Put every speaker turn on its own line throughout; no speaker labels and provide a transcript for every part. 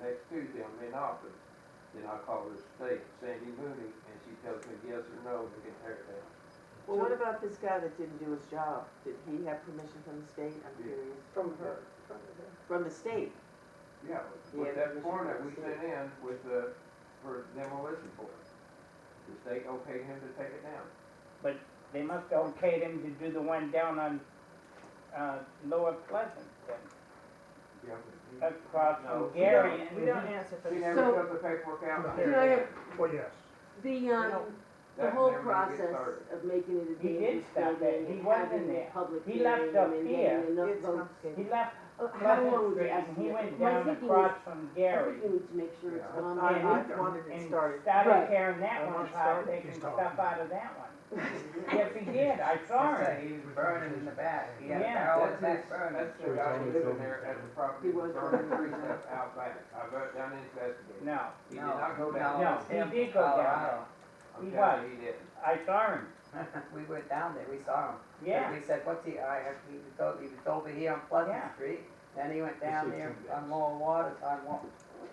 next Tuesday, I'm in office. Then I call the state, Sandy Mooney, and she tells me yes or no, we can tear it down.
Well, what about this guy that didn't do his job? Did he have permission from the state? I'm
Yeah.
curious.
From her, from her.
From the state?
Yeah, with that form that we sent in with the, for demolition board. The state okayed him to take it down.
They must okay them to do the one down on, uh, Lower Pleasant then,
Yeah, but he-
across
No,
from
we
Gary.
don't-
and-
We don't answer for
She
this.
never took the paperwork out. and
Can
tear it
I-
down.
Well, yes.
The, um, the
That's
whole
never gonna get
process
started.
of making it a
He did
dangerous
stop that.
building
He
and
wasn't
having a
there.
public
He
hearing
left
and
up
getting
here.
enough
It's
votes.
complicated.
He left
Oh,
Uh, How long
Pleasant
was it?
Street and he went
My
down
thinking
across
is,
from
I
Gary.
think you need to make sure it's
Yeah.
on.
I,
the-
I wanted it
and
started.
Right.
started tearing that
Uh-huh.
one apart,
Started.
taking
He's
stuff
talking.
out of that one. Yes, he did, I saw
Said
it.
He was burning in the back, he had a
Yeah.
barrel in the
That's
back
his,
burning.
that's the guy who lived in there at the property,
He was
was on
running.
the three step out back. I wrote down and investigated.
No,
He did not go
No,
down.
No,
it's
he
him
did
from
go down
Colorado.
I'm
he
telling
was.
you, he didn't.
I saw him,
We went down there, we saw him. But
yeah.
We said, what's he, I, have- he was over, he was over here on Pleasant
Yeah.
Street, then he went down
This is
there
two
on
days.
Lower Waters, on Wa-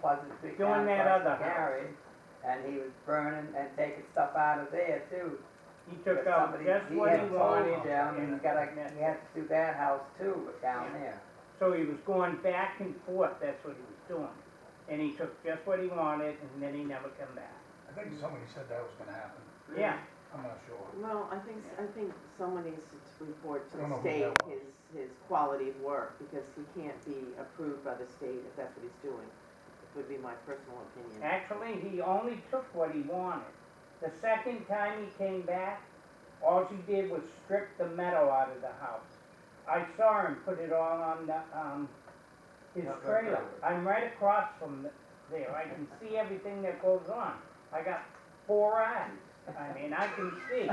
Pleasant Street.
Doing
down
that
across
other
the
house.
Gary, And he was burning and taking stuff out of there too.
He
But
took out
somebody-
just what he
had tore
wanted.
it down
and-
and got a, he had to do that house too, but down
Yeah.
there.
So he was going back and forth, that's what he was doing. And he took just what he wanted and then he never come back.
I think somebody said that was gonna happen.
Yeah,
I'm not sure.
Well, I think, I think someone needs to report to
I don't know
the
who
state
that was.
his, his quality of work, because he can't be approved by the state if that's what he's doing, would be my personal opinion.
actually, he only took what he wanted. The second time he came back, all she did was strip the metal out of the house. I saw him put it all on the, um, his
Not that
trailer.
trailer.
I'm right across from th- there, I can see everything that goes on. I got four eyes, I mean, I can see.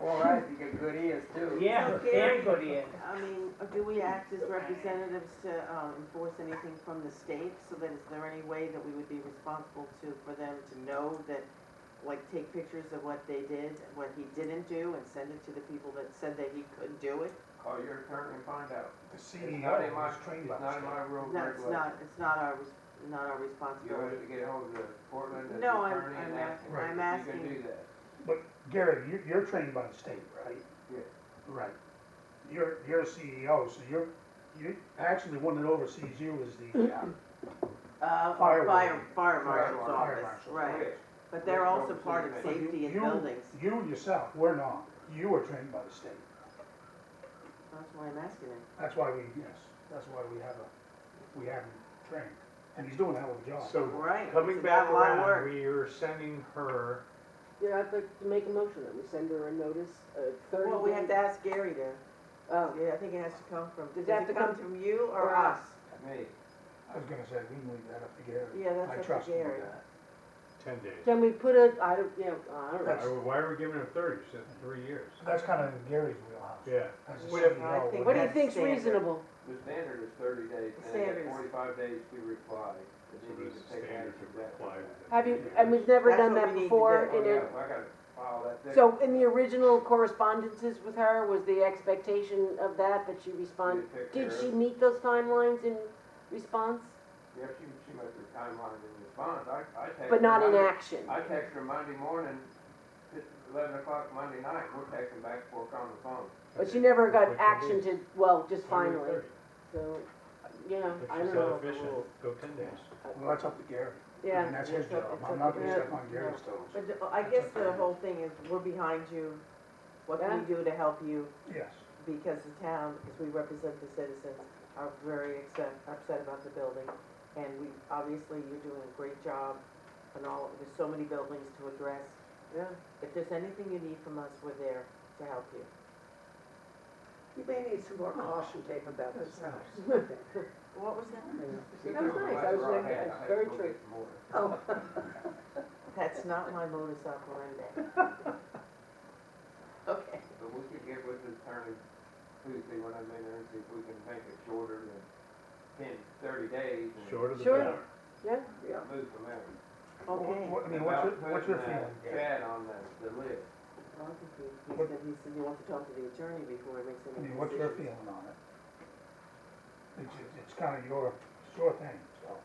All right, you get good ears too.
Yeah,
So Gary-
damn good he is.
I mean, do we act as representatives to, um, enforce anything from the state, so that is there any way that we would be responsible to, for them to know that, like, take pictures of what they did, what he didn't do, and send it to the people that said that he couldn't do it?
Call your attorney and find out.
The
It's not in
CEO
my,
was
it's
trained by
not in my
the
rule of
No, it's
regulation.
not, it's not our, res- not our
You
responsibility.
have to get hold of the Portland attorney
No, I'm-
and
I'm
ask
asking-
him.
I'm
You
asking-
can do that.
state. But Gary, you, you're trained by the state, right?
Yeah.
Right. You're, you're a CEO, so you're, you, actually, one that oversees you is the uh,
Uh, fire,
Fire
fire,
warden.
fire
Fire
marshal's
warden.
fire
office,
marshal.
right,
Yeah.
but they're
Yeah,
also
don't
part
do
of
anything.
safety in
You-
buildings,
You yourself, we're not. You were trained by the state.
that's why I'm asking him.
That's why we, yes, that's why we have a, we have him trained. And he's doing a hell of a job.
So,
Right,
coming
it's
back
about a lot of
around,
work.
we are sending her,
Yeah, I'd like to make a motion that we send her a notice, a thirty.
Well, we have to
day-
ask Gary to,
Oh,
yeah, I think it has to come from,
Does
does
it have
it
to
come
come
from you or
or
us?
Me,
I was gonna say, we can leave that up to Gary.
Yeah,
I
that's up
trust
to
him
Gary.
with that.
ten days.
can we put a, I don't, yeah, I don't know.
That's-
Why are we giving her thirty, she said three years?
That's kind of in Gary's wheelhouse.
Yeah,
As a
Whatever.
CEO,
I think
What do you
that's
think's
standard.
reasonable?
the standard is thirty days,
The
and they
standard
get
is-
forty-five days to reply, and
so
then you
this
can
is
take
standard
action.
to
that
reply.
way.
within
Have you,
three
and
years.
we've never
That's
done
what
that
we need to
before
Oh,
do.
in a,
yeah, well, I gotta file that thing.
so in the original correspondences with her, was the expectation of that, but she responded?
You take
Did
care
she
of it.
meet those timelines in response?
Yeah, she, she must have timeline in response, I, I text her
But not in
Monday-
action?
I text her Monday morning, it's eleven o'clock Monday night, we're texting back and forth on the phone.
But she never got
But ten
action
days.
to, well, just
Why were we
finally,
30?
so, yeah,
If
I
she's
don't know.
inefficient, go ten days.
Well, that's up to Gary. I mean,
Yeah,
that's his
it's up-
job.
it's
I'm
up
not
to
gonna
him.
step on Gary's toes.
But the- I guess the whole thing is, we're behind you, what can we do to help you?
Yes.
because the town, because we represent the citizens, are very upset, upset about the building. And we, obviously, you're doing a great job and all, there's so many buildings to address.
yeah.
If there's anything you need from us, we're there to help you.
You may need some more caution tape about
this house.
What was that?
She
That was
took the
nice. I was
letter
like,
had. I
that's
had to
very
go
true.
get some more.
That's not my modus operandi. Okay.
But we could get with the attorney Tuesday when I'm in there and see if we can make it shorter than ten, thirty days and
Shorter the
Sure.
better.
move from there.
Well,
Okay.
what- I mean, what's your, what's your feeling,
About putting, uh,
Gary?
Chad on the, the list.
Well, I think he, he said, he said he wants to talk to the attorney before he makes
I
any
mean,
decisions.
what's your feeling on it? It's, it's kind of your, it's your thing, so.